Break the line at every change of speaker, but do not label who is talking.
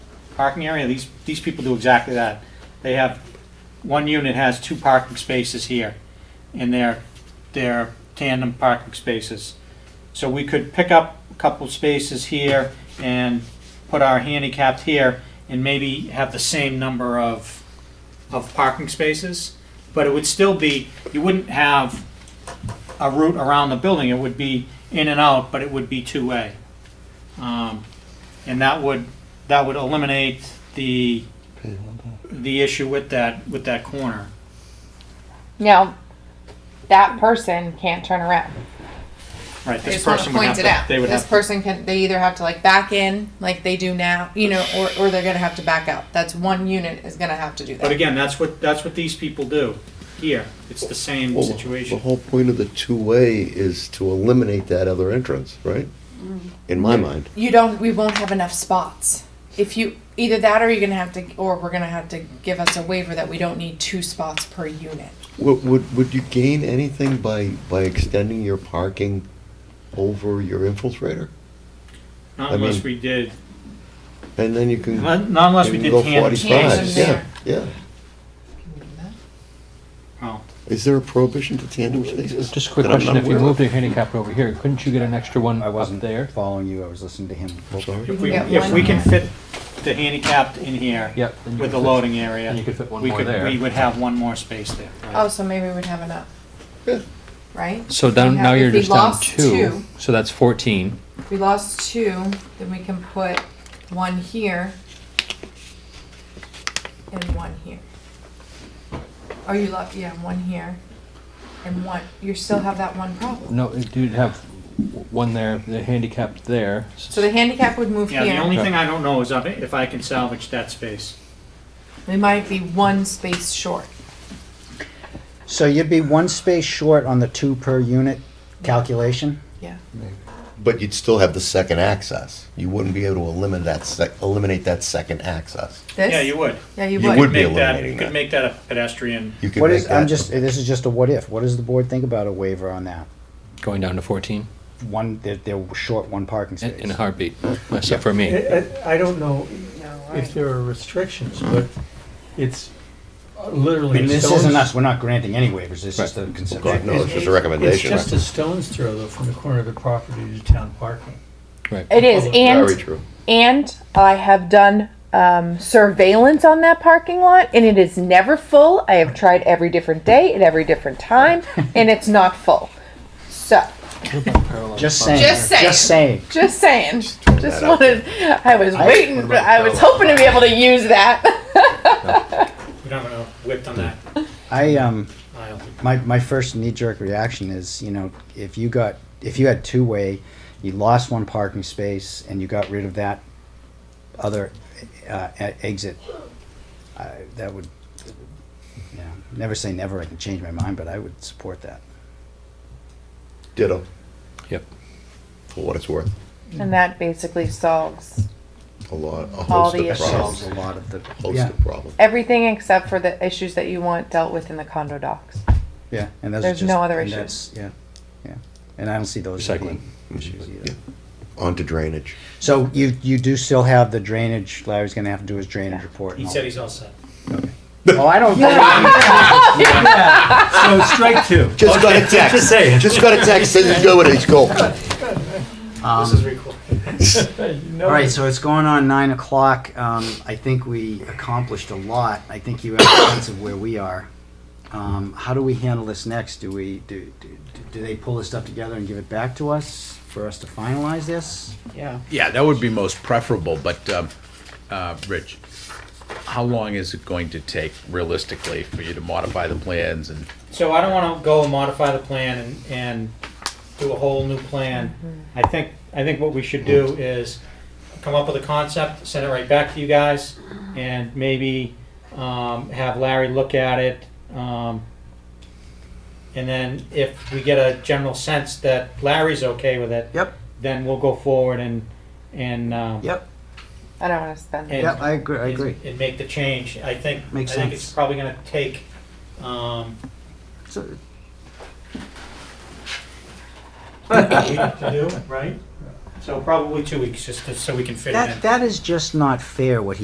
parking area, these, these people do exactly that. They have, one unit has two parking spaces here, and they're, they're tandem parking spaces. So we could pick up a couple spaces here and put our handicapped here, and maybe have the same number of, of parking spaces. But it would still be, you wouldn't have a route around the building, it would be in and out, but it would be two-way. Um, And that would, that would eliminate the, the issue with that, with that corner.
Now, that person can't turn around.
Right,
I
this
just want to
person would have
point it
to,
out.
they would
This
have to.
person can, they either have to like back in like they do now, you know, or, or they're gonna have to back out. That's one unit is gonna have to do
But
that.
again, that's what, that's what these people do here. It's the same
Well, The
situation.
whole point of the two-way is to eliminate that other entrance, right?
Mm-hmm.
In my mind.
You don't, we won't have enough spots. If you, either that or you're gonna have to, or we're gonna have to give us a waiver that we don't need two spots per unit.
Would, would, would you gain anything by, by extending your parking over your infiltrator?
Not
I mean-
unless we did,
And then you can.
not not unless we
you can
did
go
tandem
45.
Tandem
spaces.
Yeah,
there.
yeah.
Well,
Is there a prohibition to tandem spaces?
Just a quick
that I'm
question,
not
if you
aware of?
moved your handicap over here, couldn't you get an extra one
I
up
wasn't
there?
following you. I was listening to him.
I'm sorry.
If we,
Yeah,
if
one
we can
more.
fit the handicapped in here.
Yep, then you
With
could
the
fit-
loading area.
then you could fit one
we
more
could-
there.
We would have one more space there. right.
Oh, so maybe we'd have enough.
Yeah.
Right?
So
We'd
down,
have-
now you're
if we
just down
lost
two, so that's fourteen.
If we lost two, then we can put one here and one here. Oh, you left, yeah, one here and one, you still have that one problem.
No, you'd have one there, the handicapped there.
So the handicap would move
Yeah, the
here.
only thing I don't know is if I- if I can salvage that space.
We might be one space short.
So you'd be one space short on the two per unit calculation?
Yeah.
But you'd still have the second access. You wouldn't be able to eliminate that sec, eliminate that second access.
This?
Yeah, you would.
Yeah, you
You
would.
would. be
Make that, you
eliminating
could
that.
make that a pedestrian.
You could
What
make
is, I'm
that-
just, this is just a what if. What does the board think about a waiver on that?
Going down to fourteen,
One, they're, they're short one parking
in, in a
space.
heartbeat, except for me.
I I- I don't know
right.
if there are restrictions, but it's
I
literally.
mean,
a
this
stone's-
isn't us, we're not granting any waivers, it's
Right.
just a
God, no,
consideration.
it's just a
It's
recommendation.
just a stone's throw, though, from the corner of the property to town parking.
It is,
Very
Very
and,
true.
and I have done, um, surveillance on that parking lot and it is never full. I have tried every different day at every different time and it's not full. So.
Just saying,
Just saying.
just saying.
Just saying. Just
that out
wanted. I was waiting. but I was hoping to be able to use that.
We don't have enough width on that
I, um,
aisle.
my, my first knee-jerk reaction is, you know, if you got, if you had two-way, you lost one parking space and you got rid of that other uh, e- exit, I, that would, yeah, never say never, I can change my mind, but I would support that.
Ditto,
Yep.
for what it's worth.
and that basically solves
A lot, a
All
host
the
of
issues.
problems.
Solves a lot of the,
Host
yeah,
of problems.
everything except for the issues that you want dealt with in the condo docs.
yeah, and those are
There's
just-
no other
and
issue.
that's- Yeah, yeah, and I don't see those as being issues
Yeah.
either.
Onto drainage.
So you, you do still have the drainage, Larry's gonna have to do his drainage report. and
He
all
said
that.
he's all set.
Oh, I don't.
So strike two.
Just got a text.
Just saying.
Just got a text, says he's going, he's going.
This is recorded.
Um, All right, so it's going on nine o'clock. Um, I think we accomplished a lot. I think you have a sense of where we are. Um, how do we handle this next? Do we, do, do, do they pull this stuff together and give it back to us for us to finalize this?
Yeah, that would be most preferable, but, um, uh, Rich, how long is it going to take realistically for you to modify the plans and?
So I don't want to go and modify the plan and, and do a whole new plan. I think, I think what we should do is come up with a concept, send it right back to you guys, and maybe, um, have Larry look at it. Um, and then if we get a general sense that Larry's okay with it.
Yep.
Then we'll go forward and, and, um.
Yep,
I don't want to spend.
and-
yep, I agree, I agree.
And make the change. I think.
Makes
I think it's
sense.
probably gonna take, um,
So,
to do, right? So probably two weeks, just to- so we can fit it in.
That, that is just not fair what he